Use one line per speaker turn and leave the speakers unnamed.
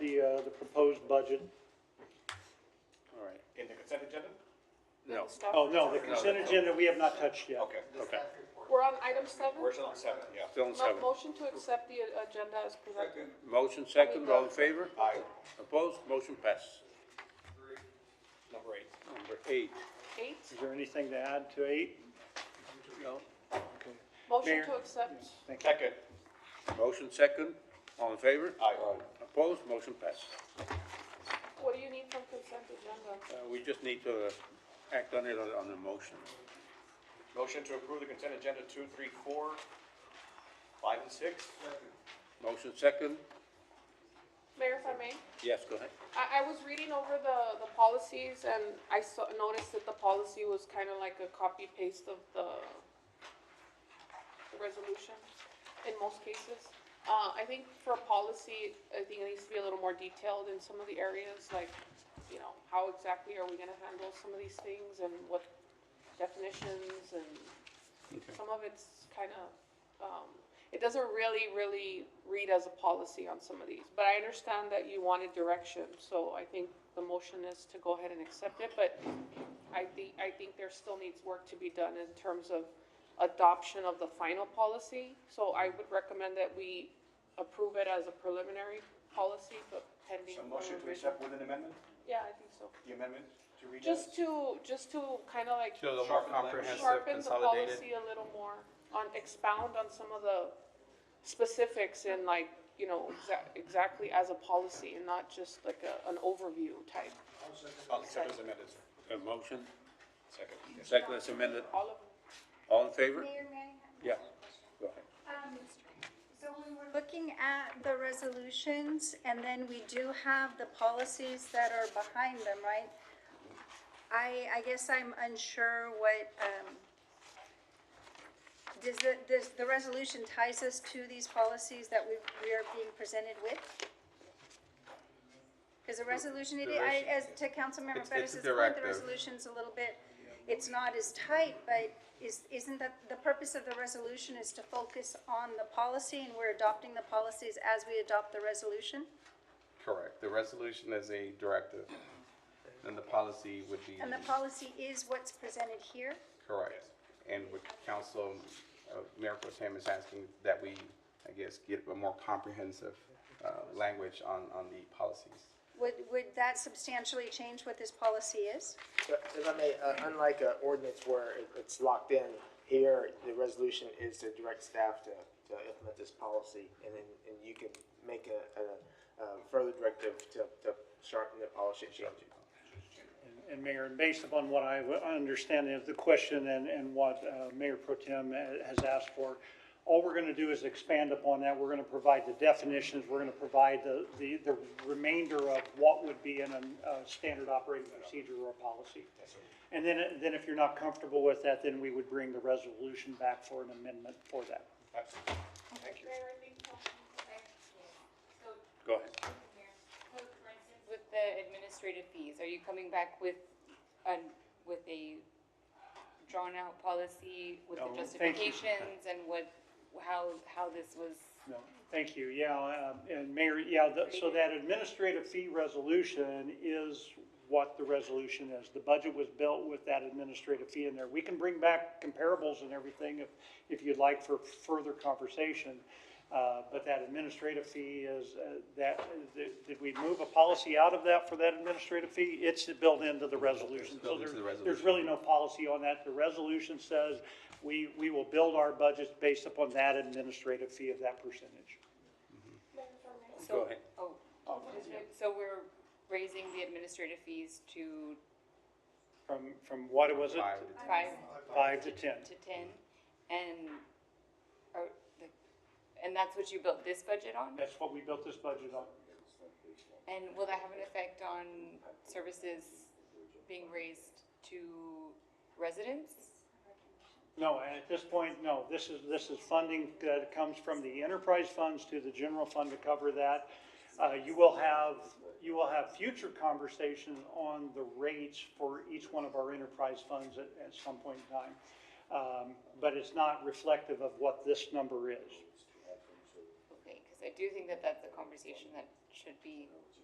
uh, budget. All right.
In the consent agenda?
No.
Oh, no, the consent
no.
agenda we have not touched yet.
Okay,
Okay.
We're on item seven?
where's it on seven, yeah.
Still in
Mo-
seven.
Motion to accept the a- agenda as presented.
Motion second, all in favor?
Aye.
Opposed? Motion passes.
Number eight.
Number eight.
Eight,
Is there anything to add to eight?
No.
motion
Mayor.
to accept.
Thank you.
Second.
Motion second, all in favor?
Aye.
Opposed? Motion passes.
What do you need from consent agenda?
Uh, we just need to uh, act on it on, on the motion.
Motion to approve the consent agenda two, three, four, five, and six?
Motion second?
Mayor, if I may?
Yes, go ahead.
I, I was reading over the, the policies and I saw, noticed that the policy was kind of like a copy paste of the resolution in most cases. Uh, I think for policy, I think it needs to be a little more detailed in some of the areas, like, you know, how exactly are we gonna handle some of these things and what definitions and some of it's kind of, um, it doesn't really, really read as a policy on some of these. But I understand that you wanted direction, so I think the motion is to go ahead and accept it, but I think, I think there still needs work to be done in terms of adoption of the final policy. So I would recommend that we approve it as a preliminary policy, but pending.
So motion
further
to
revision.
accept with an amendment,
Yeah, I think so.
the amendment to read as?
Just to, just to kind of like
So the more
Sharpen the language.
comprehensive,
sharpen the
consolidated.
policy a little more, on, expound on some of the specifics in like, you know, exac- exactly as a policy and not just like a, an overview type.
I'll Oh, accept as amended.
A motion,
Second. Yes.
second as amended,
All of,
all in favor?
Mayor, may I?
Yeah, go ahead.
Um, So when we're looking at the resolutions, and then we do have the policies that are behind them, right? I, I guess I'm unsure what, um, does the, does the resolution ties us to these policies that we, we are being presented with? Because the resolution, it, I, as to Councilmember
It's- it's a
Bettis's point, the
directive.
resolution's a little bit, it's not as tight, but is, isn't that, the purpose of the resolution is to focus on the policy, and we're adopting the policies as we adopt the resolution?
Correct. The resolution is a directive, and the policy would be.
And the policy is what's presented here?
Correct. And what council, uh, Mayor Pro Tem is asking that we, I guess, get a more comprehensive, uh, language on, on the policies.
Would, would that substantially change what this policy is?
But If I may, uh, unlike an ordinance where it- it's locked in, here, the resolution is to direct staff to, to implement this policy, and then, and you can make a, a, a further directive to, to sharpen the policy and change it.
And Mayor, based upon what I w- understand of the question and, and what uh, Mayor Pro Tem ha- has asked for, all we're going to do is expand upon that. We're going to provide the definitions, we're going to provide the, the the remainder of what would be in a a standard operating procedure or a policy. And then, it- then if you're not comfortable with that, then we would bring the resolution back for an amendment for that.
Absolutely. Thank you.
Go ahead.
So, for instance, With the administrative fees, are you coming back with, an with a drawn-out policy with the
No, thank you.
justifications and what, how, how this was?
No, thank you, yeah, um, and Mayor, yeah, the- so that administrative fee resolution is what the resolution is. The budget was built with that administrative fee in there. We can bring back comparables and everything if, if you'd like for further conversation. Uh, But that administrative fee is, uh, that, did- did we move a policy out of that for that administrative fee? It's built into the resolution.
It's
So
built
there,
into the
there's
resolution.
really no policy on that. The resolution says we, we will build our budgets based upon that administrative fee of that percentage.
so-
Go ahead.
Oh, just re- so we're raising the administrative fees to
From, from what was it?
Five to ten.
five
Five to ten.
to ten? And, are the and that's what you built this budget on?
That's what we built this budget on.
And will that have an effect on services being raised to residents?
No, and at this point, no, this is, this is funding that comes from the enterprise funds to the general fund to cover that. Uh, you will have, you will have future conversations on the rates for each one of our enterprise funds at, at some point in time. Um, but it's not reflective of what this number is.
Okay, because I do think that that's a conversation that should be